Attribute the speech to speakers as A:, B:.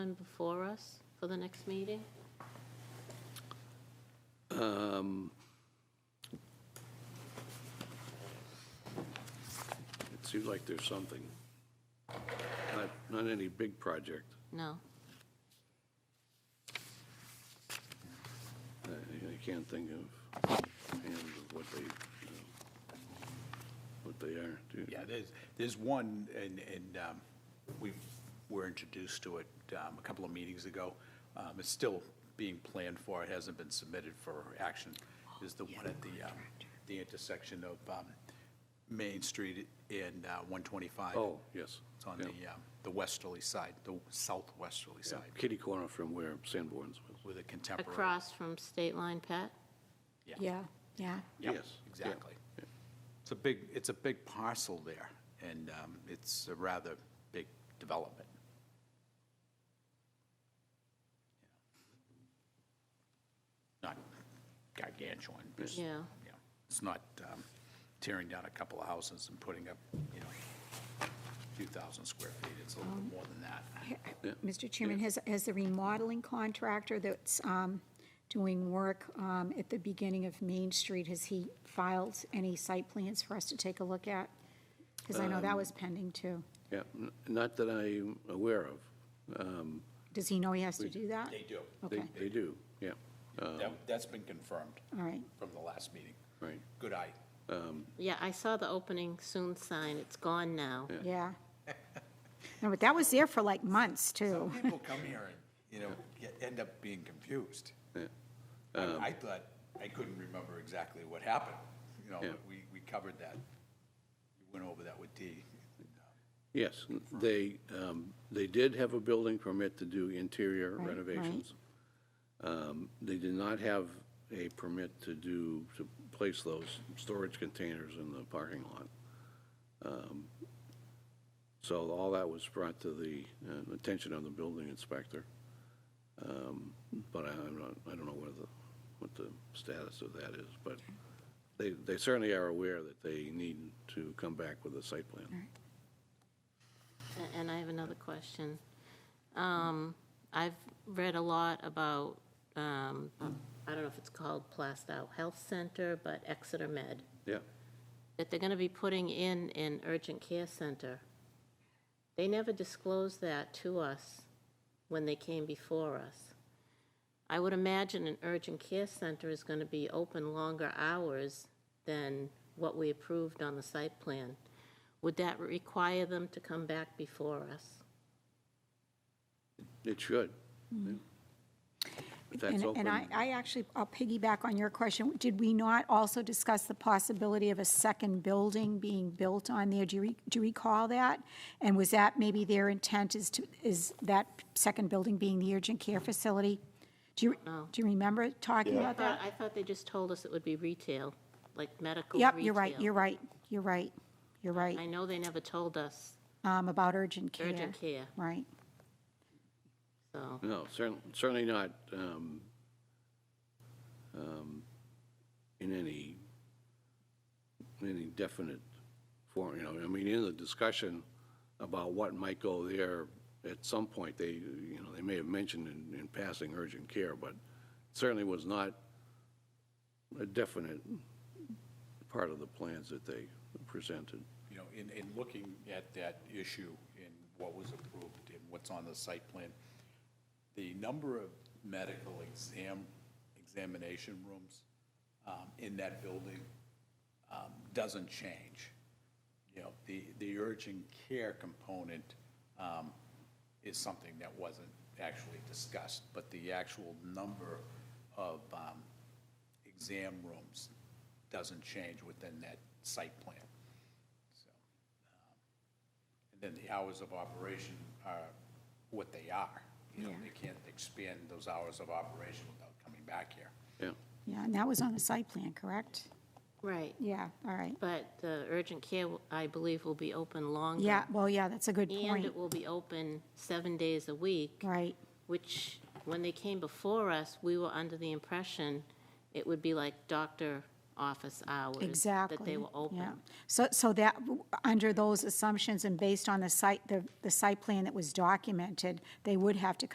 A: one before us for the next meeting?
B: Um, It seems like there's something. Not, not any big project.
A: No.
B: I I can't think of and what they, you know, what they are. Do-
C: Yeah, there's, there's one, and, and um, we were introduced to it um, a couple of meetings ago. Um, It's still being planned for, it hasn't been submitted for action, is the one at the, um, the intersection of um, Main Street and uh, 125.
B: Oh, yes.
C: It's on
B: yeah.
C: the, um, the westerly side, the southwesterly
B: Yeah,
C: side,
B: Kitty corner from where Sanborn's was.
C: with a contemporary.
A: Across from State Line Pet?
D: Yeah, yeah.
C: Yep,
B: Yes, yeah.
C: Exactly. It's a big, it's a big parcel there, and um, it's a rather big development. Not gargantuan, but, it's-
A: Yeah.
C: yeah, it's not um, tearing down a couple of houses and putting up, you know, a few thousand square feet, it's a little bit more than that.
D: Mr. Chairman, has, has the remodeling contractor that's um, doing work um, at the beginning of Main Street, has he filed any site plans for us to take a look at? Because I know that was pending too.
B: Yeah, n- not that I'm aware of. Um,
D: Does he know he has to do that?
C: They do,
B: they-
D: Okay,
B: They do, yeah,
C: That- that's been confirmed
D: all right.
C: from the last meeting.
B: right.
C: Good eye.
A: Yeah, I saw the opening soon sign. It's gone now.
D: Yeah. No, but that was there for like months,
C: Some
D: too.
C: people come here and, you know, get- end up being confused. I I thought, I couldn't remember exactly what happened, you know,
B: Yeah.
C: but we, we covered that. We Went over that with Dee.
B: Yes, n- they, um, they did have a building permit to do interior
D: Right, right.
B: renovations. Um, They did not have a permit to do, to place those storage containers in the parking lot. Um, So all that was brought to the uh, attention of the building inspector. Um, But I- I'm not, I don't know where the, what the status of that is, but they, they certainly are aware that they need to come back with a site plan.
A: A- And I have another question. Um, I've read a lot about, um, I don't know if it's called Plastow Health Center, but Exeter Med,
B: Yeah.
A: that they're going to be putting in an urgent care center. They never disclosed that to us when they came before us. I would imagine an urgent care center is going to be open longer hours than what we approved on the site plan. Would that require them to come back before us?
B: It should. yeah. If that's
D: Mm-hmm. And
B: open.
D: and I, I actually, I'll piggyback on your question. Did we not also discuss the possibility of a second building being built on there? Do you, re- do you recall that? And was that maybe their intent is to, is that second building being the urgent care facility? Do you, do you remember talking
A: I
D: about
A: thought,
D: that?
A: I thought they just told us it would be retail, like medical retail.
D: Yep, you're right, you're right, you're right, you're right,
A: I know they never told us,
D: um, about urgent care.
A: Urgent care.
D: Right.
A: so,
B: No, certainly, certainly not um, um, in any, any definite form, you know, I mean, in the discussion about what might go there, at some point, they, you know, they may have mentioned in, in passing urgent care, but certainly was not a definite part of the plans that they presented.
C: You know, in, in looking at that issue and what was approved and what's on the site plan, the number of medical exam, examination rooms um, in that building um, doesn't change. You know, the, the urgent care component um, is something that wasn't actually discussed, but the actual number of um, exam rooms doesn't change within that site plan. So, um, And then the hours of operation are what they are. You know,
D: Yeah.
C: they can't expand those hours of operation without coming back here.
B: Yeah,
D: Yeah, and that was on the site plan, correct?
A: right.
D: Yeah, all right.
A: But the urgent care, I believe, will be open longer.
D: Yeah, well, yeah, that's a good
A: And
D: point,
A: it will be open seven days a week,
D: right.
A: which, when they came before us, we were under the impression it would be like doctor office hours.
D: Exactly.
A: That they were
D: yeah.
A: open.
D: So, so that, under those assumptions and based on the site, the, the site plan that was documented, they would have to